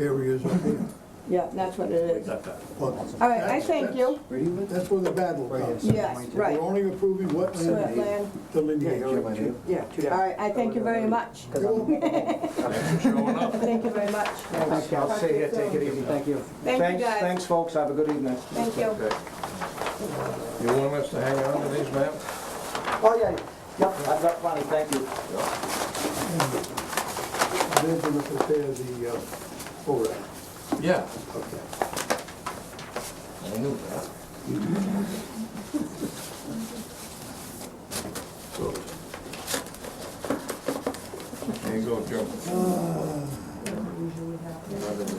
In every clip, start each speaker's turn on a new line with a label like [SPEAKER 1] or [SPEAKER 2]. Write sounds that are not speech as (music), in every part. [SPEAKER 1] areas up there.
[SPEAKER 2] Yeah, that's what it is.
[SPEAKER 3] Got that.
[SPEAKER 1] But
[SPEAKER 2] All right, I
[SPEAKER 1] that's-
[SPEAKER 2] thank you.
[SPEAKER 4] Where do you live?
[SPEAKER 1] That's where the battle comes.
[SPEAKER 2] Yes, right.
[SPEAKER 1] We're only approving wetland
[SPEAKER 2] Wetland,
[SPEAKER 4] Yeah,
[SPEAKER 1] delineation.
[SPEAKER 4] you
[SPEAKER 2] yeah.
[SPEAKER 4] Two down.
[SPEAKER 2] All right, I thank you very much. Thank you very much.
[SPEAKER 4] Okay, I'll stay here, take it easy, thank you.
[SPEAKER 2] Thank you,
[SPEAKER 4] Thanks-
[SPEAKER 2] guys.
[SPEAKER 4] Thanks, folks, have a good evening.
[SPEAKER 2] Thank you.
[SPEAKER 3] Okay. You want us to hang on to these maps?
[SPEAKER 4] Oh, yeah, yep, I've got plenty, thank you.
[SPEAKER 1] They're gonna prepare the, uh, ORAD.
[SPEAKER 3] Yeah,
[SPEAKER 1] Okay.
[SPEAKER 3] I knew that. So. There you go, Joe. Another one.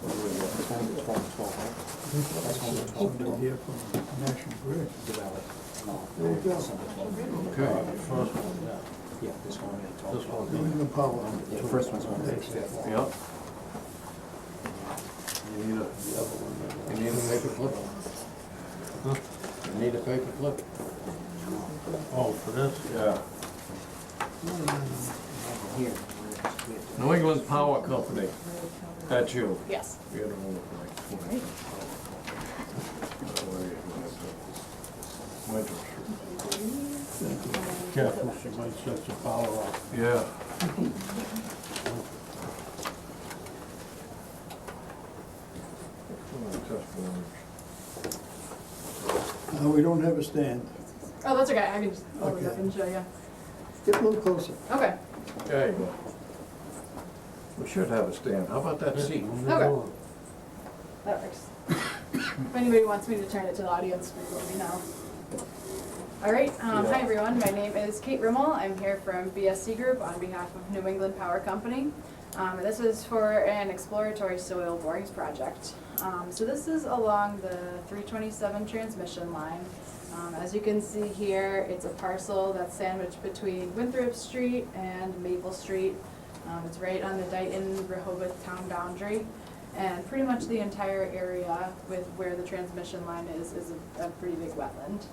[SPEAKER 3] What
[SPEAKER 1] Somebody here from National Grid. There you go.
[SPEAKER 3] do we got? Okay, first
[SPEAKER 4] Yeah, this one, yeah,
[SPEAKER 3] This one.
[SPEAKER 1] Even the power.
[SPEAKER 4] Yeah, first one's on the next step.
[SPEAKER 3] Yep. You need a, you need a paper clip? Huh? You need a paper clip? Oh, for this? Yeah.
[SPEAKER 4] Here.
[SPEAKER 3] New England Power Company, that's you.
[SPEAKER 5] Yes.
[SPEAKER 3] You don't look like twenty. That way it might- might have-
[SPEAKER 6] Careful, she might shut your power off.
[SPEAKER 3] Yeah.
[SPEAKER 1] Uh, we don't have a stand.
[SPEAKER 5] Oh, that's okay. I can just hold it up
[SPEAKER 1] Okay.
[SPEAKER 5] and show you.
[SPEAKER 1] Get a little closer.
[SPEAKER 5] Okay.
[SPEAKER 3] There you go. We should have a stand, how about that seat?
[SPEAKER 5] Okay. That works. (coughs) if anybody wants me to turn it to the audience, please let me know. All right. Um, Hi, everyone. My name is Kate Rimmel. I'm here from BSC Group on behalf of New England Power Company. Um, this is for an exploratory soil borings project. Um, so this is along the 327 transmission line. Um, as you can see here, it's a parcel that's sandwiched between Winthrop Street and Maple Street. Um, it's right on the Dayton Rehoboth town boundary. And pretty much the entire area with where the transmission line is, is a, a pretty big wetland.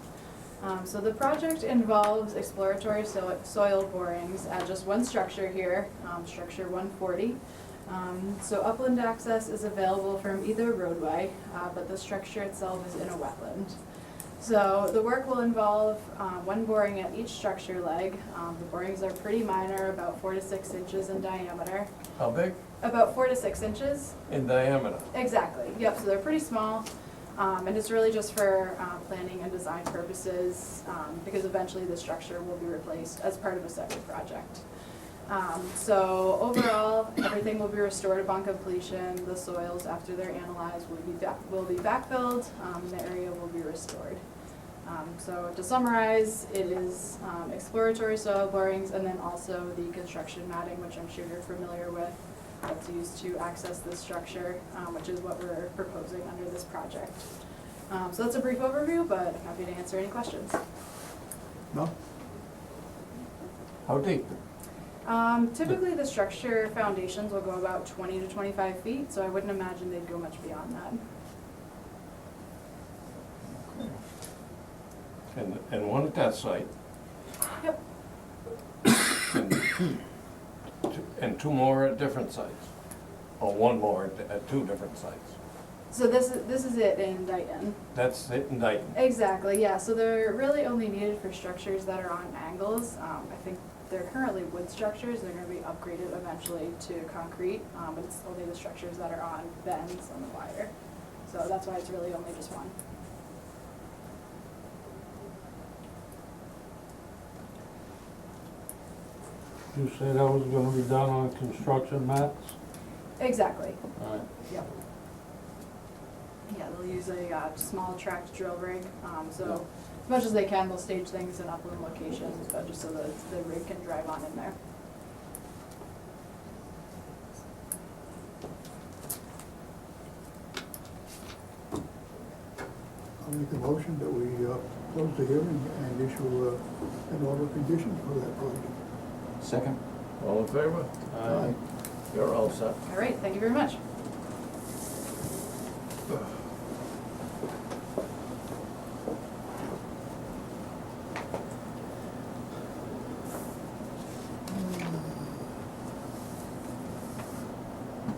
[SPEAKER 5] Um, so the project involves exploratory so- soil borings at just one structure here, um, structure one forty. Um, so upland access is available from either roadway, uh, but the structure itself is in a wetland. So the work will involve uh, one boring at each structure leg. Um, the borings are pretty minor, about four to six inches in diameter,
[SPEAKER 3] How big?
[SPEAKER 5] about four to six inches
[SPEAKER 3] In diameter.
[SPEAKER 5] Exactly, yep, so they're pretty small, um, and it's really just for, uh, planning and design purposes, um, because eventually the structure will be replaced as part of a separate project. Um, so overall, everything will be restored upon completion, the soils after they're analyzed will be back, will be backfilled, um, the area will be restored. Um, so to summarize, it is, um, exploratory soil borings and then also the construction matting, which I'm sure you're familiar with that's used to access this structure, um, which is what we're proposing under this project. Um, So that's a brief overview, but happy to answer any questions.
[SPEAKER 1] No?
[SPEAKER 3] How deep?
[SPEAKER 5] Um, Typically, the structure foundations will go about 20 to 25 feet, so I wouldn't imagine they'd go much beyond that.
[SPEAKER 3] And, and one at that site,
[SPEAKER 5] Yep,
[SPEAKER 3] and, two- and two more at different sites, or one more at, at two different sites.
[SPEAKER 5] so this is, this is it in Dayton.
[SPEAKER 3] That's it in Dayton.
[SPEAKER 5] Exactly, yeah, so they're really only needed for structures that are on angles. Um, I think they're currently wood structures, they're gonna be upgraded eventually to concrete, um, but it's only the structures that are on bends on the wire. So that's why it's really only just one.
[SPEAKER 6] You said that was gonna be done on construction mats?
[SPEAKER 5] Exactly,
[SPEAKER 6] Alright.
[SPEAKER 5] yep. Yeah, they'll use a, uh, small tracked drill rig, um, so as much as they can, they'll stage things in upland locations, but just so that the rig can drive on in there.
[SPEAKER 1] I'll make a motion that we, uh, close the hearing and issue, uh, an order of conditions for that project.
[SPEAKER 4] Second?
[SPEAKER 3] All in favor?
[SPEAKER 6] Aye.
[SPEAKER 3] You're all set.
[SPEAKER 5] All right, thank you very much.